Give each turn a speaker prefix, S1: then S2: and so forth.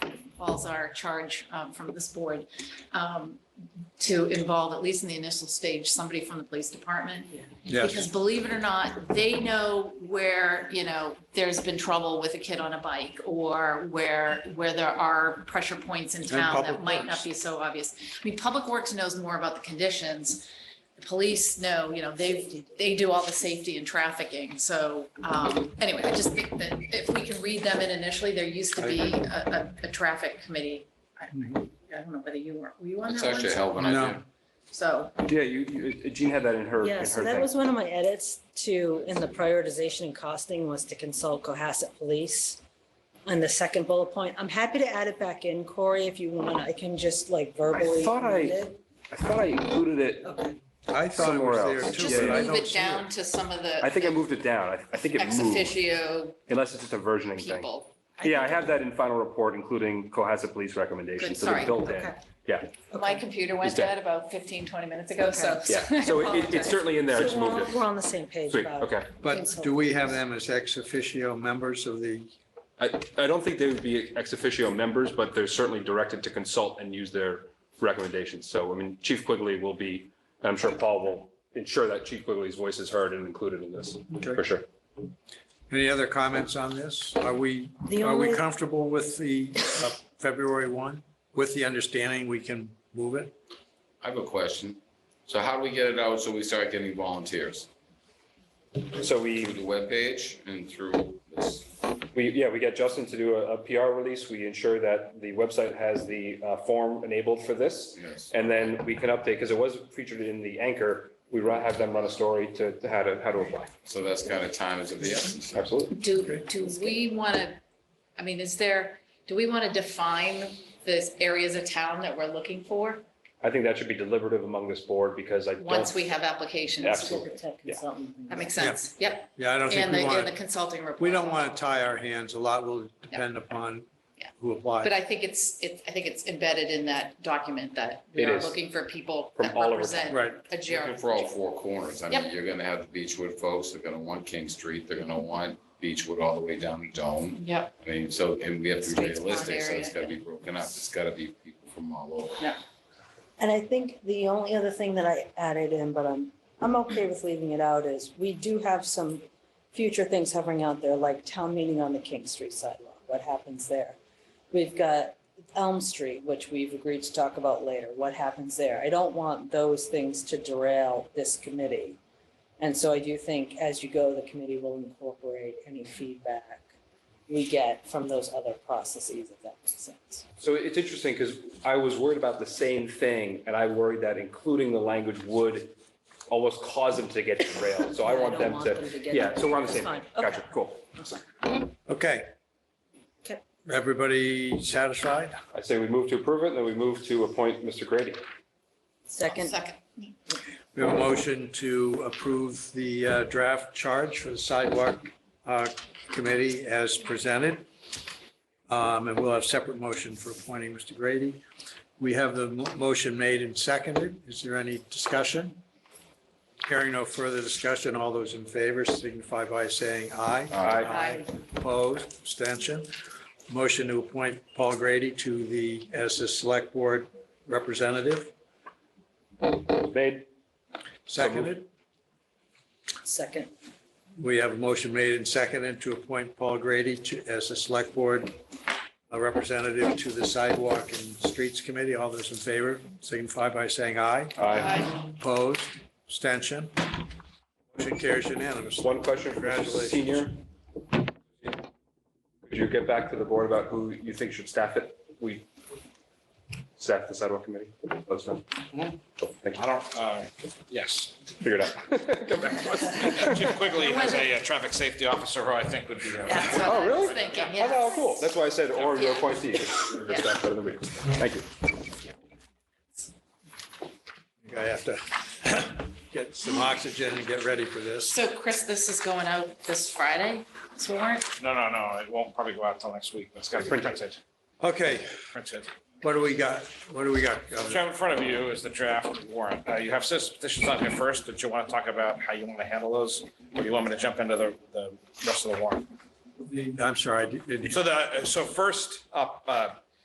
S1: falls our charge um, from this board um, to involve, at least in the initial stage, somebody from the police department. Because believe it or not, they know where, you know, there's been trouble with a kid on a bike or where, where there are pressure points in town
S2: Public
S1: that might
S2: Works.
S1: not be so obvious. I mean, Public Works knows more about the conditions. The Police know, you know, they, they do all the safety and trafficking. So um, anyway, I just think that if we can read them in initially, there used to be a, a, a traffic committee. I
S2: Mm-hmm.
S1: I don't know whether you were, were you on
S3: That's
S1: that
S3: actually a
S1: one?
S3: hell of an idea.
S1: So.
S4: Yeah, you, you- Jean had that in her, in her
S5: Yeah, so that
S4: thing.
S5: was one of my edits to, in the prioritization and costing was to consult Cohasset Police. On the second bullet point, I'm happy to add it back in, Corey, if you want. I can just like verbally.
S4: thought I-
S5: amend it.
S4: I thought I included it,
S5: Okay,
S2: I thought it was
S4: Somewhere
S2: there
S4: else.
S2: too.
S1: Just
S4: Yeah,
S2: but I
S1: move
S2: don't
S1: it
S2: see
S1: down to some of the.
S4: I think I moved it down, I, I think it
S1: Ex
S4: moved,
S1: officio
S4: unless it's just a versioning thing.
S1: people.
S4: Yeah, I have that in final report, including Cohasset Police recommendations,
S1: Good,
S4: so they're
S1: sorry.
S4: built in.
S5: okay.
S1: My computer went
S4: It's dead.
S1: dead about 15, 20 minutes ago, so.
S4: Yeah, so it- it, it's certainly in there, I just
S5: So we're,
S4: moved
S5: on- we're
S4: it.
S5: on the same page
S4: Sweet,
S5: about it.
S4: okay.
S2: But do we have them as ex officio members of the,
S4: I, I don't think they would be ex officio members, but they're certainly directed to consult and use their recommendations. So, I mean, Chief Quigley will be, and I'm sure Paul will ensure that Chief Quigley's voice is heard and included in this, for
S2: Okay.
S4: sure.
S2: any other comments on this? Are we,
S5: The
S2: are Uh, we
S5: only-
S2: comfortable with the uh, February 1? With the understanding we can move it?
S3: I have a question. So how do we get it out so we start getting volunteers?
S4: So
S3: Through
S4: we,
S3: the webpage and through this?
S4: we, yeah, we got Justin to do a, a PR release. We ensure that the website has the uh, form enabled for this.
S3: Yes.
S4: And then we can update, because it was featured in the anchor, we run- have them run a story to to how to, how to apply.
S3: So that's kind of time is of the essence.
S4: Absolutely.
S1: Do, do we want to, I mean, is there, do we want to define the areas of town that we're looking for
S4: I think that should be deliberative among this board because I don't.
S1: once we have applications?
S4: Absolutely.
S5: Did the tech
S4: Yeah.
S5: consultant.
S1: That makes sense. Yep.
S2: Yeah, I don't think
S1: And the,
S2: we want
S1: and the
S2: to,
S1: consulting report.
S2: we don't want to tie our hands. A lot will depend upon
S1: Yeah.
S2: who applies.
S1: But I think it's, it, I think it's embedded in that document that we
S4: It
S1: are
S4: is.
S1: looking for people
S4: From
S1: that
S4: all over
S1: represent
S2: Right.
S1: a
S3: Looking
S1: ger-
S3: for all four corners. I mean,
S1: Yep.
S3: you're gonna have the Beechwood folks, they're gonna want King Street, they're gonna want Beechwood all the way down to Dome.
S1: Yep.
S3: I mean, so, and we have to be
S1: Streets, pond
S3: realistic, so it's
S1: area.
S3: gotta be broken up. It's gotta be people from all over.
S5: And I think the only other thing that I added in, but I'm, I'm okay with leaving it out, is we do have some future things hovering out there, like town meeting on the King Street sidewalk, what happens there? We've got Elm Street, which we've agreed to talk about later, what happens there? I don't want those things to derail this committee. And so I do think as you go, the committee will incorporate any feedback we get from those other processes, if that makes sense.
S4: So it's interesting because I was worried about the same thing and I worried that including the language would almost cause them to get derailed. So I want
S5: don't
S4: them to,
S5: get-
S4: yeah, so we're on the
S5: That's
S4: same.
S5: fine.
S4: page.
S5: Okay.
S4: Gotcha, cool.
S2: Okay.
S5: Okay.
S2: Everybody satisfied?
S4: I say we move to approve it and then we move to appoint Mr. Grady.
S5: Second,
S1: Second.
S2: We have a motion to approve the uh, draft charge for the sidewalk uh, committee as presented. Um, And we'll have separate motion for appointing Mr. Grady. We have the mo- motion made and seconded. Is there any discussion? Hearing no further discussion, all those in favor signify by saying aye.
S3: Aye.
S1: Aye.
S2: Opposed, abstention. Motion to appoint Paul Grady to the, as the select board representative,
S4: Made,
S2: seconded.
S5: second.
S2: We have a motion made and seconded to appoint Paul Grady to, as the select board uh, representative to the sidewalk and streets committee. All those in favor signify by saying aye.
S4: aye.
S2: Opposed, abstention. Motion carries unanimously.
S4: One question for Mr.
S2: Congratulations.
S4: Senior. Could you get back to the board about who you think should staff it? We staff the sidewalk committee. Let us know. Cool, Thank you.
S6: I don't, uh, yes.
S4: Figure it out. Come back to us.
S6: Chief Quigley has a uh, traffic safety officer who I think would be. uh,
S1: That's what
S4: Oh,
S1: I was
S4: really?
S1: thinking,
S4: Oh,
S1: yes.
S4: no, cool. That's why I said, or
S1: Yeah.
S4: your appointee. Thank you.
S2: I have to get some oxygen and get ready for this.
S1: So Chris, this is going out this Friday, this warrant?
S6: No, no, no, it won't probably go out till next week. It's got to be printed,
S2: Okay,
S6: printed.
S2: what do we got? What do we got?
S6: What
S2: Governor?
S6: you have in front of you is the draft warrant. Uh, You have citizen petitions on here first. Did you want to talk about how you want to handle those? Or you want me to jump into the, the rest of the warrant?
S2: I'm sorry, I didn't.
S6: So the, so first up, uh,